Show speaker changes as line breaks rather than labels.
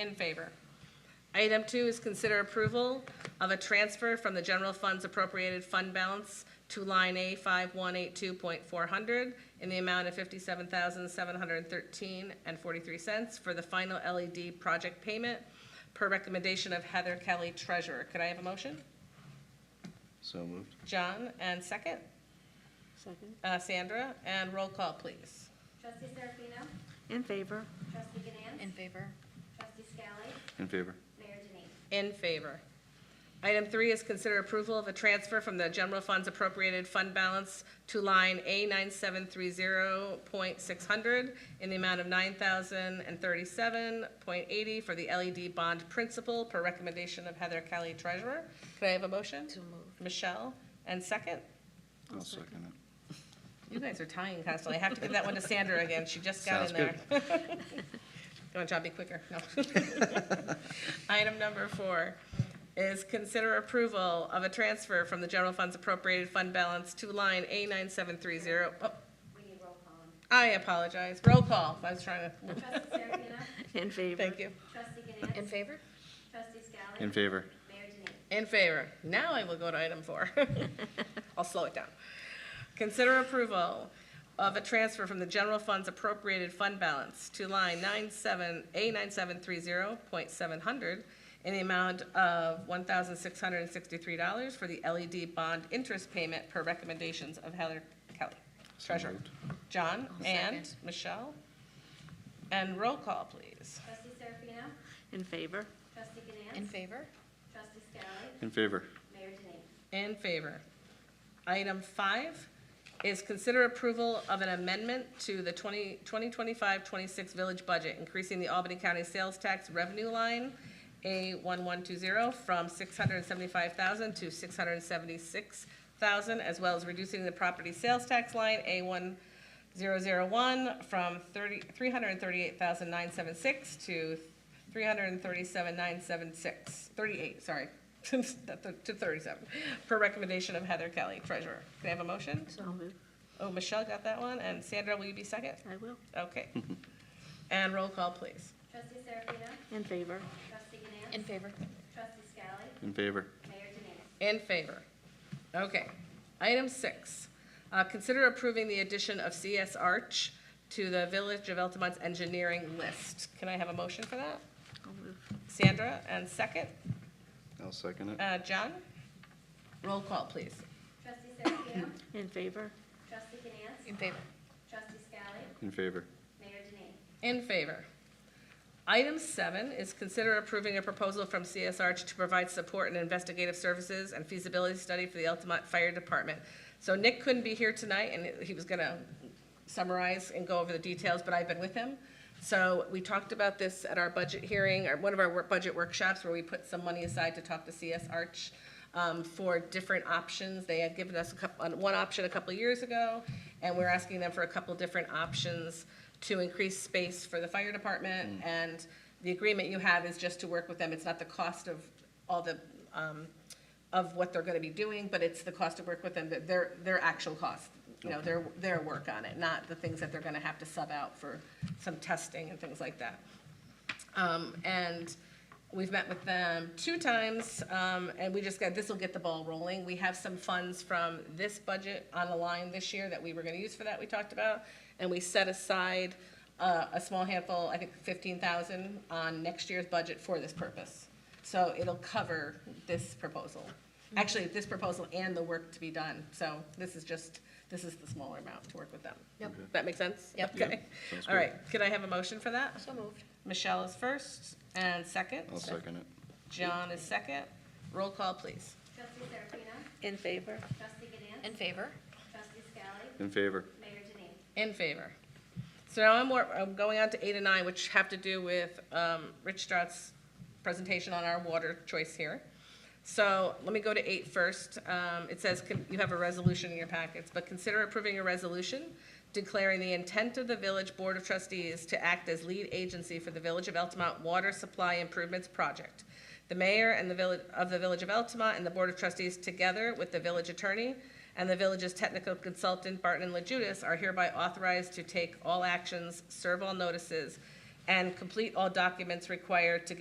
In favor. Item two is consider approval of a transfer from the general fund's appropriated fund balance to line A five one eight two point four hundred in the amount of fifty-seven thousand seven hundred and thirteen and forty-three cents for the final LED project payment per recommendation of Heather Kelly Treasurer. Could I have a motion?
So moved.
John, and second?
Second.
Uh, Sandra, and roll call, please.
Trustee Serafino?
In favor.
Trustee Ganance?
In favor?
Trustee Scally?
In favor.
Mayor Denine?
In favor. Item three is consider approval of a transfer from the general fund's appropriated fund balance to line A nine seven three zero point six hundred in the amount of nine thousand and thirty-seven point eighty for the LED bond principal per recommendation of Heather Kelly Treasurer. Could I have a motion?
So moved.
Michelle, and second?
I'll second it.
You guys are tying constantly. I have to give that one to Sandra again. She just got in there.
Sounds
Go on, John, be quicker. No. Item number four is consider approval of a transfer from the general fund's appropriated fund balance to line A nine seven three zero. Oh,
We need roll call.
I apologize. Roll call. I was trying to,
Trustee Serafino?
In favor.
thank you.
Trustee Ganance?
In favor?
Trustee Scally?
In favor.
Mayor Denine?
In favor. Now I will go to item four. I'll slow it down. Consider approval of a transfer from the general fund's appropriated fund balance to line 97, A9730.700 in the amount of $1,663 for the LED bond interest payment per recommendations of Heather Kelly, treasurer.
moved.
John and
second.
Michelle. And roll call, please.
Trustee Serafino?
In favor.
Trustee Ganance?
In favor?
Trustee Scally?
In favor.
Mayor Denine?
In favor. Item five is consider approval of an amendment to the 20 2025-26 village budget, increasing the Albany County sales tax revenue line, A1120, from 675000 to 676000 as well as reducing the property sales tax line, A1001, from 30 338976 to 337,976, 38, sorry, to 37, per recommendation of Heather Kelly, treasurer. Can I have a motion?
So moved.
Oh, Michelle got that one, and Sandra, will you be second?
I will.
Okay. And roll call, please.
Trustee Serafino?
In favor.
Trustee Ganance?
In favor?
Trustee Scally?
In favor.
Mayor Denine?
In favor. Okay. Item six, uh, consider approving the addition of CS Arch to the Village of Altamont's engineering list. Can I have a motion for that?
I'll move.
Sandra, and second,
I'll second it.
uh, John? Roll call, please.
Trustee Serafino?
In favor.
Trustee Ganance?
In favor?
Trustee Scally?
In favor.
Mayor Denine?
In favor. Item seven is consider approving a proposal from CSR to provide support and investigative services and feasibility study for the Altamont Fire Department. So Nick couldn't be here tonight, and he was gonna summarize and go over the details, but I've been with him. So we talked about this at our budget hearing, or one of our work- budget workshops, where we put some money aside to talk to CS Arch um, for different options. They had given us a couple, one option a couple of years ago, and we're asking them for a couple different options to increase space for the fire department. And the agreement you have is just to work with them. It's not the cost of all the, um, of what they're gonna be doing, but it's the cost to work with them, that their, their actual cost. You know, their, their work on it, not the things that they're gonna have to sub out for some testing and things like that. Um, and we've met with them two times, um, and we just got, this will get the ball rolling. We have some funds from this budget on the line this year that we were gonna use for that, we talked about. And we set aside, uh, a small handful, I think fifteen thousand, on next year's budget for this purpose. So it'll cover this proposal. Actually, this proposal and the work to be done, so this is just, this is the smaller amount to work with them.
Yep.
That make sense?
Yep.
Yep,
Okay,
sounds
all
good.
right, could I have a motion for that?
So moved.
Michelle is first and 2nd
I'll second it.
John is second. Roll call, please.
Trustee Serafino?
In favor.
Trustee Ganance?
In favor?
Trustee Scally?
In favor.
Mayor Denine?
In favor. So now I'm, more, I'm going on to eight and nine, which have to do with um, Rich Strout's presentation on our water choice here. So let me go to eight first. Um, It says, con- you have a resolution in your packets, but consider approving a resolution declaring the intent of the Village Board of Trustees to act as lead agency for the Village of Altamont Water Supply Improvements Project. The mayor and the village, of the Village of Altamont and the Board of Trustees, together with the village attorney and the village's technical consultant Barton and LaJudas, are hereby authorized to take all actions, serve all notices, and complete all documents required to give